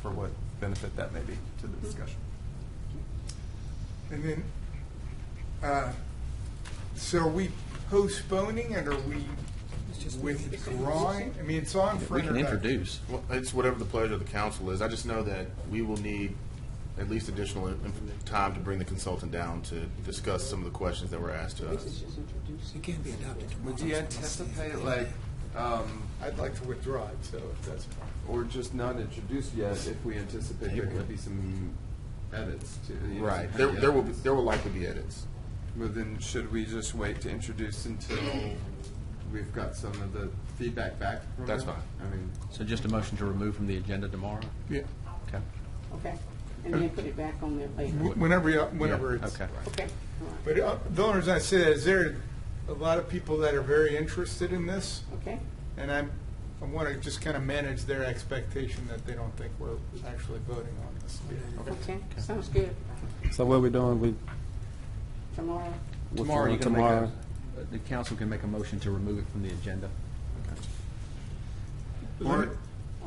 for what benefit that may be to the discussion. And then, uh, so are we postponing it, or are we withdrawing? I mean, it's on for We can introduction. introduce. Well, it's whatever the pleasure of the council is. I just know that we will need at least additional in- time to bring the consultant down to discuss some of the questions that were asked to us. It can't be adopted tomorrow. Would you anticipate like, um, I'd like to withdraw it, so if that's fine. or just not introduced yet if we anticipate there could be some edits to? you know, Right. some There, kind of there will, be- edits? there will likely be edits. Well, then should we just wait to introduce until we've got some of the feedback back from That's them? fine. I mean, So just a motion to remove from the agenda tomorrow? Yeah, Okay. Okay, and then put it back on there later. Wh- whenever, you- whenever it's. Okay. Okay, all right, But uh, the only reason I say that is there are a lot of people that are very interested in this, okay, and I'm, I want to just kind of manage their expectation that they don't think we're actually voting on this. okay, sounds good. So what we doing, we, Tomorrow, Tomorrow, you can make Tomorrow. a, the council can make a motion to remove it from the agenda. or,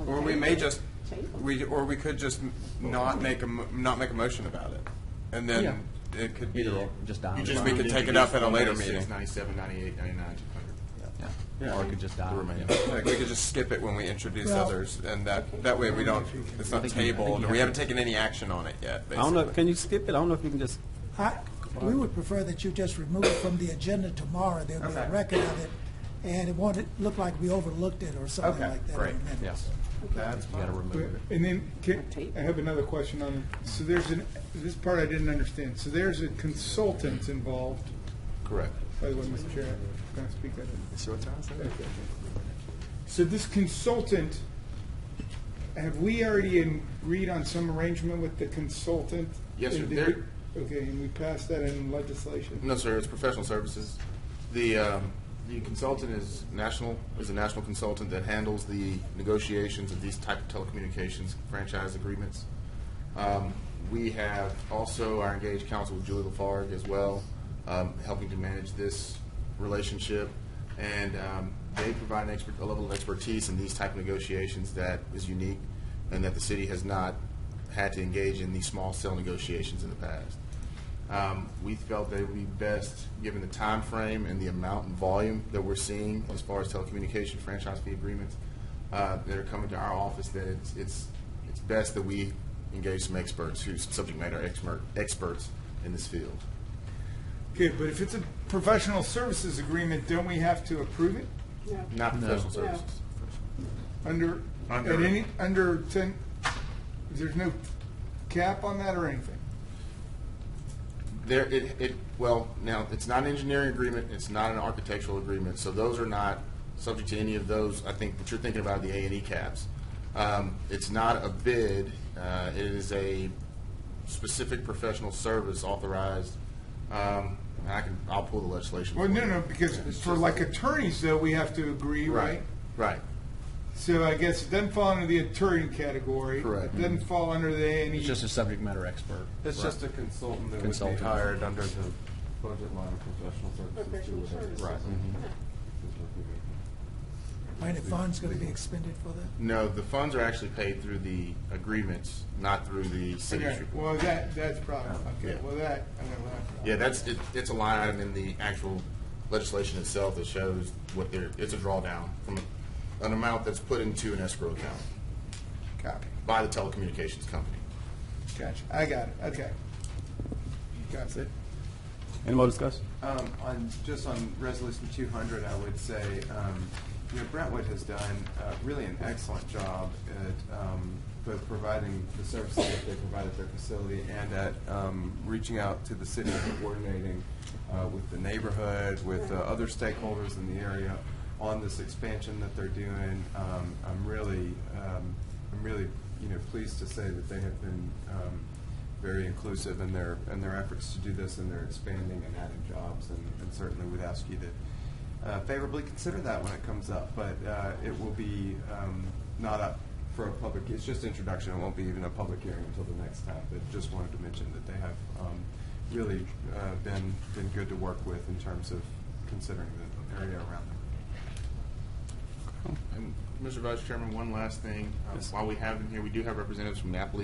or we may just, table. we, or we could just not make a, mo- not make a motion about it. And then it could be, Either or, just die. on the just vine. we could take it up at a later meeting. 97, 98, 99, 200. Yeah. Or it could just die. The remainder. Yeah. like, we could just skip it when we introduce Well- others, and that, that way we don't, it's not think you- I think you tabled, and we have haven't to- taken any action on it yet, I don't know, basically. can you skip it? I don't know if you can just, I- We would prefer that you just remove it from the agenda tomorrow, there'll be a Okay. record of it, and it won't look like we overlooked it or something Okay, like that. in great. the minutes. Yes, That's you gotta fine. remove it. And then, can- I have another question on, so there's an, this part I didn't understand. So there's a consultant involved, Correct. by the way, Mr. Chair, can I speak that? It's your time, sir. Okay. So this consultant, have we already agreed on some arrangement with the consultant? Yes, sir. And did There- we- Okay, and we passed that in legislation? No, sir, it's professional services. The, um, the consultant is national, is a national consultant that handles the negotiations of these type of telecommunications franchise agreements. Um, We have also our engaged counsel Julie Lafargue as well, um, helping to manage this relationship. And um, they provide an expert, a level of expertise in these type of negotiations that is unique and that the city has not had to engage in these small cell negotiations in the past. Um, we felt that it would be best, given the time frame and the amount and volume that we're seeing as far as telecommunication franchise fee agreements uh, that are coming to our office, that it's, it's, it's best that we engage some experts, who's subject matter expert, experts in this field. Okay, but if it's a professional services agreement, don't we have to approve it No. Not professional No. services. under, at Under- any, under ten, there's no cap on that or anything? There, it, it, well, now, it's not an engineering agreement, it's not an architectural agreement, so those are not subject to any of those, I think, that you're thinking about, the A and E caps. Um, it's not a bid, uh, it is a specific professional service authorized, um, and I can, I'll pull the legislation. Well, for no, you. no, because for like attorneys though, we have to agree, Right, right? right, So I guess it doesn't fall under the attorney category. Correct. It Doesn't fall under the A and E. It's just a subject matter expert. It's just a consultant that would be Consultant. hired under the budget line of professional Professional services. services. to- Right. Mm-hmm. Are any funds gonna be expended for that? no, the funds are actually paid through the agreements, not through the Okay, city's. well, that, that's probably, okay, Yeah. well, that, I don't know. that's probably- Yeah, that's, it- it's a line item in the actual legislation itself that shows what they're, it's a drawdown from an amount that's put into an escrow account Copy, by the telecommunications company. gotcha, I got it, okay. Got it. any more discussion? Um, on, just on resolution two hundred, I would say, um, you know, Brentwood has done, uh, really an excellent job at, um, both providing the services that they provide at their facility and at, um, reaching out to the city and coordinating, uh, with the neighborhood, with, uh, other stakeholders in the area on this expansion that they're doing. Um, I'm really, um, I'm really, you know, pleased to say that they have been, um, very inclusive in their, in their efforts to do this, and they're expanding and adding jobs, and and certainly would ask you to uh, favorably consider that when it comes up, but uh, it will be um, not up for a public, it's just introduction, it won't be even a public hearing until the next time, but just wanted to mention that they have um, really uh, been, been good to work with in terms of considering the area around them. and Mr. Vice Chairman, one last thing. Uh, Yes. While we have him here, we do have representatives from Napoli